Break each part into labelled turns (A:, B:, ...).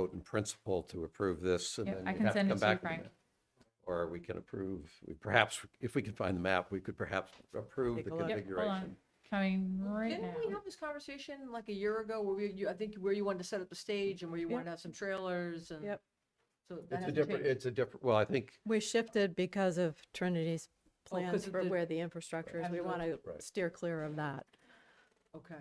A: vote in principle to approve this and
B: Yeah,
A: then
B: I
A: you
B: can
A: have to
B: send it
A: come
B: to you,
A: back with
B: Frank.
A: it. Or we can approve, we perhaps, if we can find the map, we could perhaps approve
C: Take
A: the
C: a
B: Yep,
C: look.
B: hold
A: configuration.
B: on, coming right now.
C: Didn't we have this conversation like a year ago where we, you- I think where you wanted to set up the stage and where you wanted to have some trailers and.
D: Yep.
C: So that
A: It's a
C: hasn't
A: different,
C: changed.
A: it's a different, well, I think,
D: We shifted because of Trinity's
C: Oh, 'cause
D: plans
C: of
D: for
C: the-
D: where the infrastructure is. We want to
A: Right.
D: steer clear of that.
C: Okay.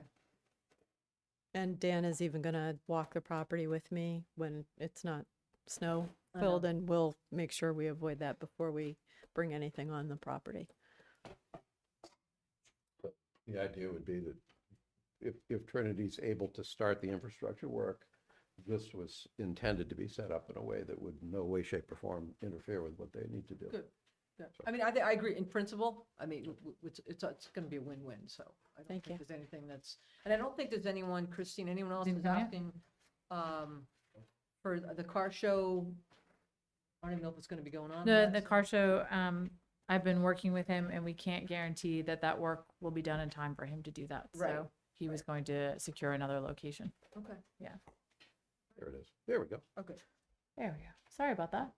D: And Dan is even going to walk the property with me when it's not snow
C: I know.
D: filled and we'll make sure we avoid that before we bring anything on the property.
A: the idea would be that if, if Trinity's able to start the infrastructure work, this was intended to be set up in a way that would in no way, shape, or form interfere with what they need to do.
C: Good. Yeah. I mean, I, thi- I agree in principle. I mean, w- w- it's, it's, it's going to be a win-win, so. I don't
D: Thank
C: think
D: you.
C: There's anything that's, and I don't think there's anyone, Christine, anyone else
B: Didn't
C: is
B: come yet.
C: asking, um, for the car show. I don't even know if it's going to be going on.
B: The,
C: yet,
B: the
C: so-
B: car show, um, I've been working with him and we can't guarantee that that work will be done in time for him to do that.
C: Right,
B: So he was going to secure another location.
C: Okay,
A: There it is. There we go.
C: okay.
B: There we go. Sorry about that.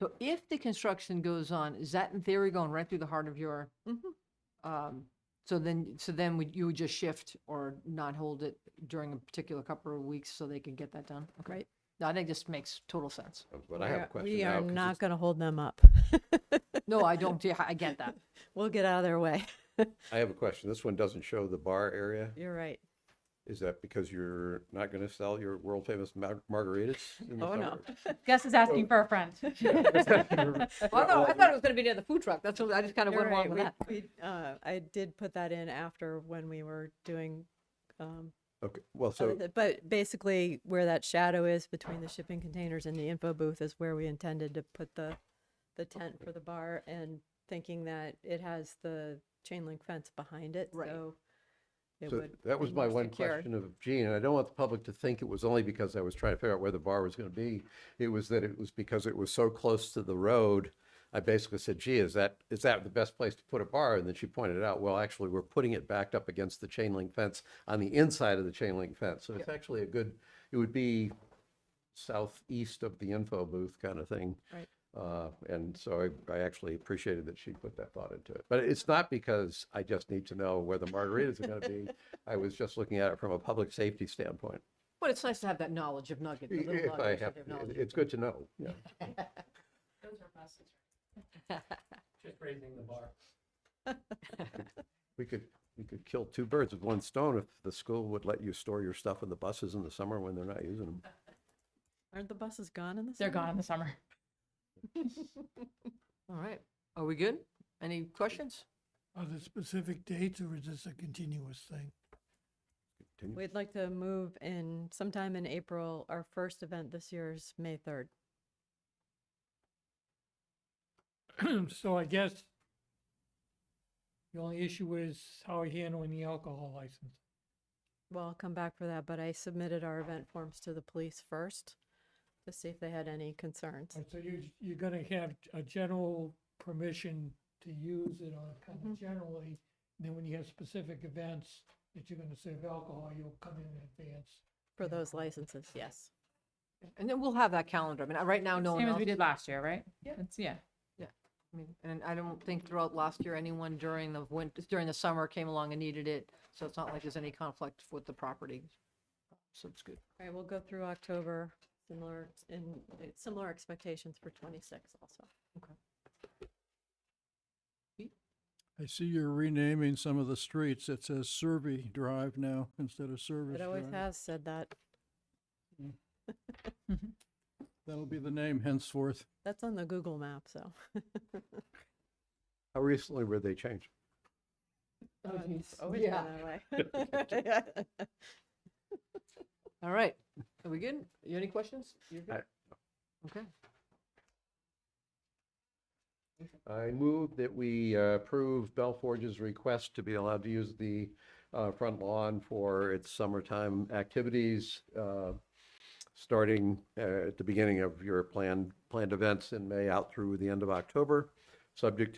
C: So if the construction goes on, is that in theory going right through the heart of your?
D: Mhm.
C: Um, so then, so then would, you would just shift or not hold it during a particular couple of weeks so they can get that done? Okay.
D: Right.
C: No, I think this makes total sense.
A: But I have a
D: We're-
A: question
D: We
A: now,
D: are
A: 'cause
D: not
A: it's-
D: going to hold them up.
C: No, I don't, yeah, I get that.
D: We'll get out of their way.
A: I have a question. This one doesn't show the bar area.
D: You're right.
A: Is that because you're not going to sell your world famous mar- margaritas? in the
D: Oh, no.
A: suburbs?
B: Gus is
A: Oh.
B: asking for a friend.
C: Well, no, I thought it was gonna be near the food truck. That's what, I just kind of
D: You're
C: went along
D: right.
C: with
D: We-
C: that.
D: we, uh, I did put that in after when we were doing, um,
A: Okay, well,
D: other
A: so,
D: th- but basically where that shadow is between the shipping containers and the info booth is where we intended to put the, the tent for the bar and thinking that it has the chain link fence behind it,
C: Right.
D: so it
A: so
D: would.
A: that was
D: be
A: my
D: more
A: one
D: secure.
A: question of Gene, and I don't want the public to think it was only because I was trying to figure out where the bar was going to be. It was that it was because it was so close to the road. I basically said, gee, is that, is that the best place to put a bar? And then she pointed out, well, actually, we're putting it backed up against the chain link fence on the inside of the chain link fence. So it's actually a good, it would be southeast of the info booth kind of thing.
D: Right.
A: Uh, And so I, I actually appreciated that she put that thought into it. But it's not because I just need to know where the margaritas are going to be. I was just looking at it from a public safety standpoint.
C: But it's nice to have that knowledge of nugget, the little
A: If I
C: nuggets
A: have,
C: of your knowledge.
A: it's good to know, yeah.
E: Just raising the bar.
A: We could, we could kill two birds with one stone if the school would let you store your stuff in the buses in the summer when they're not using them.
D: Aren't the buses gone in the
B: They're
D: summer?
B: gone in the summer.
C: All right. Are we good? Any questions?
F: Are there specific dates or is this a continuous thing?
A: Continue.
D: We'd like to move in sometime in April. Our first event this year is May 3rd.
F: So I guess the only issue is how are you handling the alcohol license?
D: Well, I'll come back for that, but I submitted our event forms to the police first to see if they had any concerns.
F: And so you, you're gonna have a general permission to use it on kind of generally. Then when you have specific events that you're gonna serve alcohol, you'll come in advance.
D: For those licenses, yes.
C: And then we'll have that calendar. I mean, I- right now, Oh, no one
B: Same as
C: else.
B: we did last year, right? Yeah. Yeah.
C: I mean, And I don't think throughout last year, anyone during the winter, during the summer came along and needed it. So it's not like there's any conflict with the property. So it's good.
D: All right, we'll go through October, similar, in, uh, similar expectations for 26 also.
G: I see you're renaming some of the streets. It says Survey Drive now instead of Service
D: It always
G: Drive.
D: has said that.
G: That'll be the name henceforth.
D: That's on the Google map, so.
A: How recently were they changed?
D: Oh, it's
C: geez.
D: Always been that way.
C: All right. Are we good? You any questions? You're good? Okay.
A: I move that we uh, approve Bell Forge's request to be allowed to use the uh, front lawn for its summertime activities, uh, starting uh, at the beginning of your planned, planned events in May out through the end of October. subject to